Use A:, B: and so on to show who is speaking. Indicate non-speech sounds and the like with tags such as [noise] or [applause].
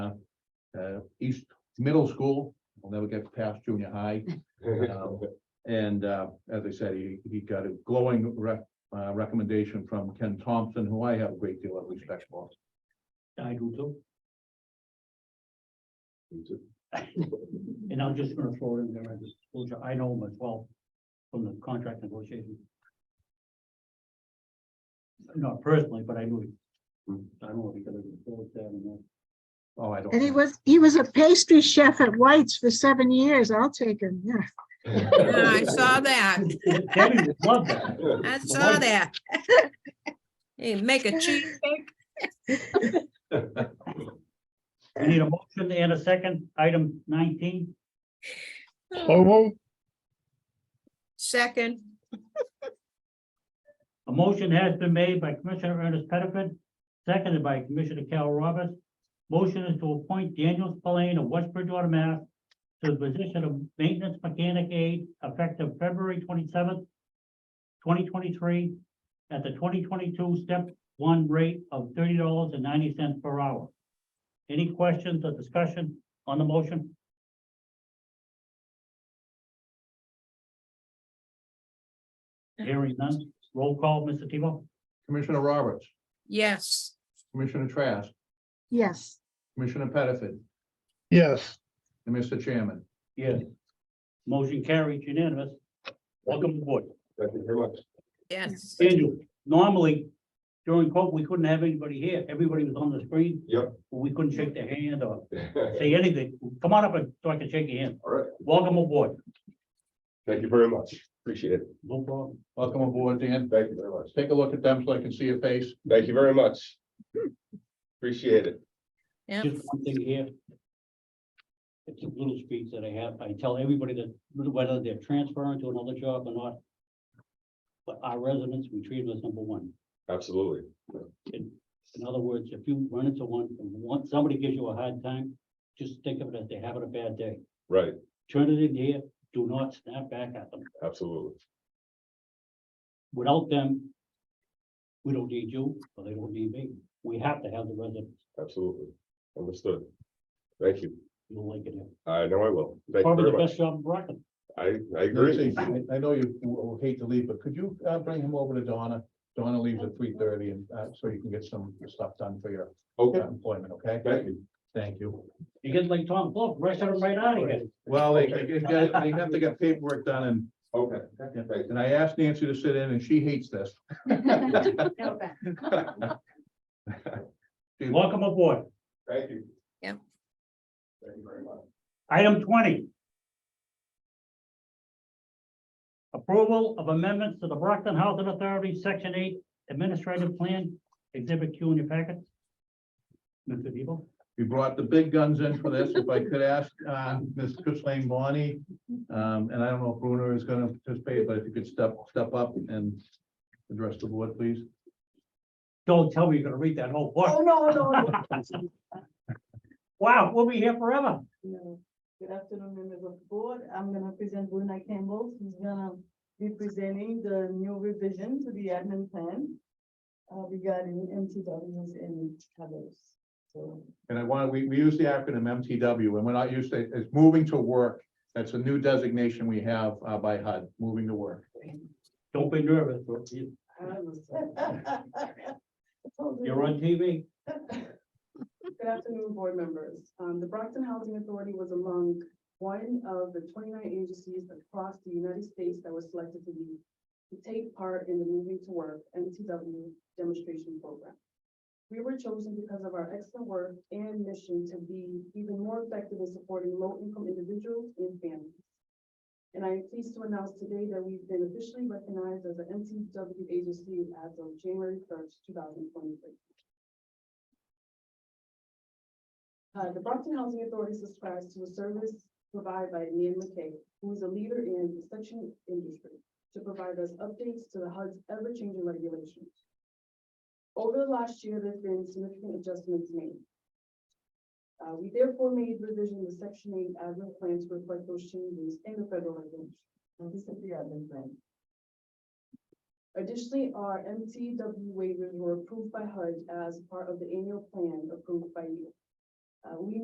A: uh, East Middle School, will never get past junior high. Um, And uh, as I said, he, he got a glowing rec, uh, recommendation from Ken Thompson, who I have a great deal of respect for.
B: I do too,
C: Me too.
B: and I'm just gonna throw it in there as a disclosure, I know him as well from the contract negotiations. Not personally, but I knew him. I know him because of the board there and that.
A: Oh, I don't.
D: And he was, he was a pastry chef at White's for seven years. I'll take him, yeah.
E: Yeah, I saw that.
B: Debbie would love that.
E: I saw that. [laughs] Hey, make a cheesecake.
B: We Need a motion and a second, item nineteen,
E: Second,
B: a motion has been made by Commissioner Ernest Pettiford, seconded by Commissioner Carol Roberts. Motion is to appoint Daniel Spillane of West Bridgewater, Mass. To the position of maintenance mechanic aide effective February twenty-seventh, twenty twenty-three, at the twenty twenty-two step one rate of thirty dollars and ninety cents per hour. Any questions or discussion on the motion? Hearing none, roll call, Mr. Tebow?
A: Commissioner Roberts,
E: yes.
A: Commissioner Trask,
D: Yes,
A: Commissioner Pettiford,
F: Yes,
A: and Mr. Chairman.
B: Yes. Motion carries unanimous. Welcome aboard.
C: Thank you very much. [laughs]
E: Yes.
B: Daniel, normally during COVID, we couldn't have anybody here. Everybody was on the screen.
C: Yep.
B: We couldn't shake their hand or say anything. Come on up and so I can shake your hand.
C: All right,
B: Welcome aboard.
C: thank you very much. Appreciate it.
B: No problem.
A: Welcome aboard, Dan.
C: Thank you very much.
A: Take a look at them so I can see your face.
C: Thank you very much. Appreciate it.
E: Yep.
B: Just one thing here. It's a little speech that I have. I tell everybody that whether they're transferring to another job or not. But our residents, we treat them as number one.
C: Absolutely.
B: In, in other words, if you run into one, and one, somebody gives you a hard time, just think of it as they're having a bad day.
C: Right,
B: Turn it in here, do not snap back at them.
C: absolutely.
B: Without them, we don't need you, or they don't need me. We have to have the residents,
C: Absolutely. Understood. Thank you.
B: you like it.
C: I know I will. Thank you
B: Probably
C: very
B: the
C: much.
B: best job in Brockton.
C: I, I agree.
A: Lucy, I I know you w- hate to leave, but could you uh, bring him over to Donna? Donna leaves at three thirty and uh, so you can get some stuff done for your
C: Okay,
A: uh, employment, okay?
C: thank you.
A: Thank you.
B: You get like Tom Blow, rush them right out of here.
A: Well, they, they get- they have to get paperwork done and
C: Okay.
A: And I asked Nancy to sit in and she hates this.
B: Welcome aboard.
C: Thank you.
E: Yep.
C: Thank you very much.
B: Item twenty. Approval of amendments to the Brockton Housing Authority, Section eight Administrative Plan, Exhibit Q in your packet. Mr. Debo,
A: We brought the big guns in for this. If I could ask, uh, Ms. Chris Lane Bonnie, um, and I don't know if Bruno is gonna participate, but if you could step, step up and address the board, please.
B: don't tell me you're gonna read that whole book. Oh, no, no. Wow, we'll be here forever.
G: Hello. Good afternoon, members of the board. I'm gonna present Bruna Campbell, who's gonna be presenting the new revision to the admin plan uh, regarding MTWs and others. So
A: And I want, we, we use the acronym MTW and we're not used to, it. it's moving to work. That's a new designation we have, uh, by HUD, moving to work.
B: Don't be nervous, bro. You-
G: [laughs]
B: you're on TV.
G: Good afternoon, board members. Um, the Brockton Housing Authority was among one of the twenty-nine agencies across the United States that were selected to be to take part in the Moving to Work MTW demonstration program. We were chosen because of our excellent work and mission to be even more effective in supporting low-income individuals and families. And I am pleased to announce today that we've been officially recognized as an MTW agency as of January first, two thousand twenty-three. Uh, the Brockton Housing Authority subscribes to a service provided by Nan McKay, who is a leader in the section industry, to provide us updates to the HUD's ever-changing regulations. Over the last year, there's been significant adjustments made. Uh, we therefore made revision to section eight admin plan to reflect those changes in the federal regulations. And this is the admin plan. Additionally, our MTW waivers were approved by HUD as part of the annual plan approved by you. Uh, we